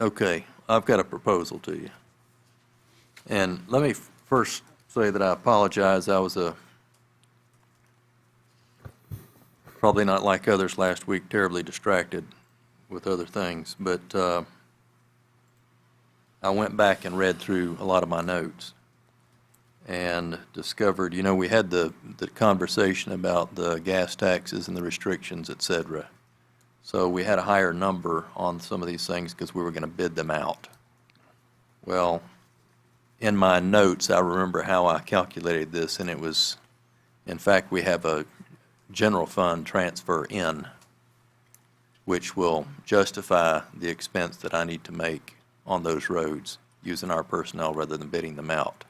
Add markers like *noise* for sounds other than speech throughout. Okay, I've got a proposal to you. And let me first say that I apologize, I was uh, a, probably not like others last week, terribly distracted with other things, but uh, I went back and read through a lot of my notes and discovered, you know, we had the, the conversation about the gas taxes and the restrictions, et cetera. So we had a higher number on some of these things because we were going to bid them out. Well, in my notes, I remember how I calculated this, and it was, in fact, we have a general fund transfer in, which will justify the expense that I need to make on those roads using our personnel rather than bidding them out.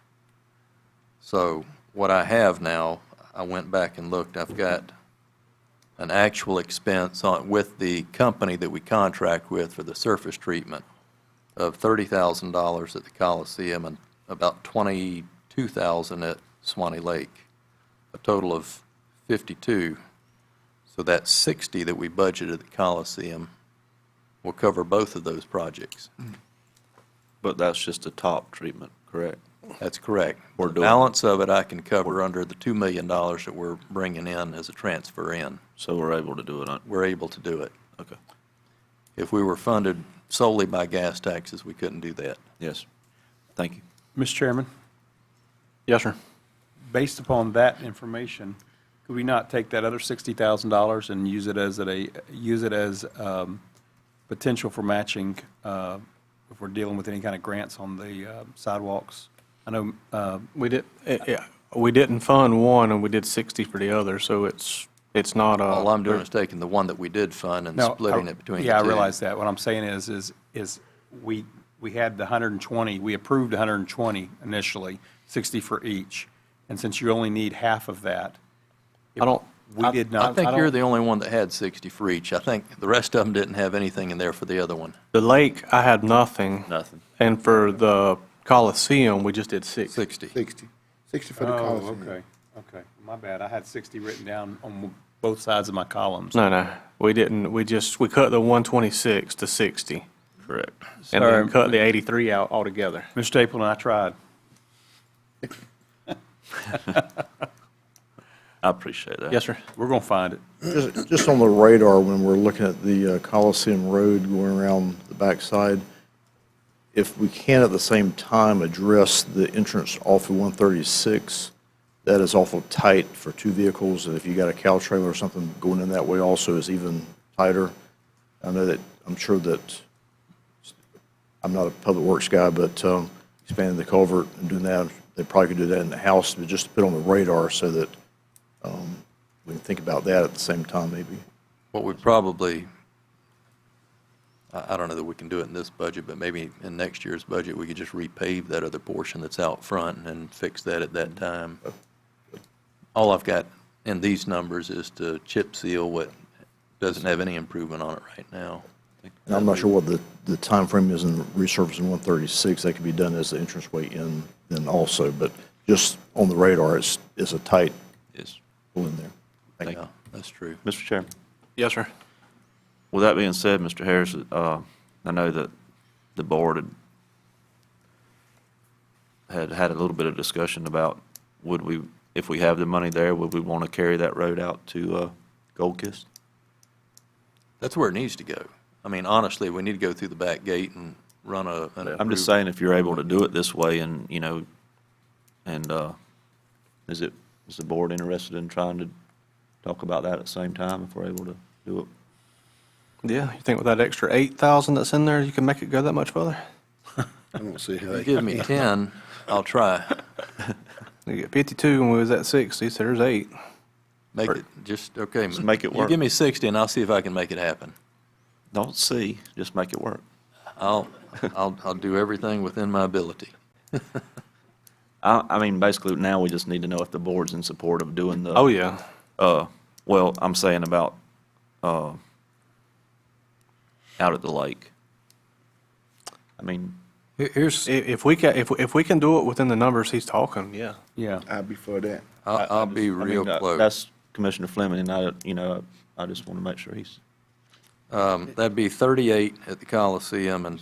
So what I have now, I went back and looked, I've got an actual expense on, with the company that we contract with for the surface treatment of thirty thousand dollars at the Coliseum and about twenty-two thousand at Swanee Lake, a total of fifty-two. So that sixty that we budgeted at the Coliseum will cover both of those projects. But that's just the top treatment, correct? That's correct. We're The doing- balance of it I can cover under the two million dollars that we're bringing in as a transfer in. So we're able to do it on, We're able to do it. okay, If we were funded solely by gas taxes, we couldn't do that. yes. Thank you. Mr. Chairman, Yes, sir. based upon that information, could we not take that other sixty thousand dollars and use it as a, use it as um, potential for matching uh, if we're dealing with any kind of grants on the uh, sidewalks? I know, uh, We did, eh, yeah, we didn't fund one and we did 60 for the other, so it's, it's not a. All I'm doing is taking the one that we did fund and Oh, No, splitting I- it between the two. oh, Yeah, I realize that. What I'm saying is, is, is we, we had the 120, we approved 120 initially, 60 for each. And since you only need half of that, I don't. we I- did I not, think you're don't- the only one that had 60 for each. I think the rest of them didn't have anything in there for the other one. The lake, I had nothing. Nothing. And for the Coliseum, we just did 60. 60. 60. 60 for the oh, Coliseum. okay, okay. My bad, I had 60 written down on both sides of my columns. No, no, we didn't, we just, we cut the 126 to 60. Correct. And then Sorry. cut the 83 out altogether. Mr. Stapleton, I tried. I appreciate that. Yes, sir. We're going to find it. Just just on the radar, when we're looking at the uh, Coliseum Road going around the backside, if we can at the same time address the entrance off of 136, that is awful tight for two vehicles, and if you got a cow trailer or something going in that way also is even tighter. I know that, I'm sure that, I'm not a public works guy, but um, expanding the culvert and doing that, they probably could do that in the house, but just to put on the radar so that um, we can think about that at the same time, maybe. What we probably, I I don't know that we can do it in this budget, but maybe in next year's budget, we could just repave that other portion that's out front and fix that at that time. All I've got in these numbers is to chip seal what doesn't have any improvement on it right now. And I'm not sure what the, the timeframe is in resurfacing 136. That could be done as the entranceway in then also, but just on the radar, it's, it's a tight Yes. pull in there. Thank you. Yeah, that's true. Mr. Chairman. Yes, sir. With that being said, Mr. Harris, uh, I know that the board had had had a little bit of discussion about would we, if we have the money there, would we want to carry that road out to, uh, Gold Kiss? That's where it needs to go. I mean, honestly, we need to go through the back gate and run a. an I'm just approved- saying, if you're able to do it this way and, you know, and, uh, is it, is the board interested in trying to talk about that at the same time if we're able to do it? Yeah, you think with that extra 8,000 that's in there, you can make it go that much further? I don't see how You *laughs* they give me 10, I'll try. You get 52 and we was at 60, so there's eight. Make it, just, okay. Just make it You work. give me 60 and I'll see if I can make it happen. Don't see, just make it work. I'll, I'll, I'll do everything within my ability. I, I mean, basically now we just need to know if the board's in support of doing the. Oh, yeah. Uh, well, I'm saying about, uh, out at the lake. I mean, Here- Here's, i- if we can, if, we- if we can do it within the numbers he's talking, yeah. Yeah. I'd be for that. I'll, I'll be I mean, real that- close. That's Commissioner Fleming and I, you know, I just want to make sure he's. Um, That'd be 38 at the Coliseum and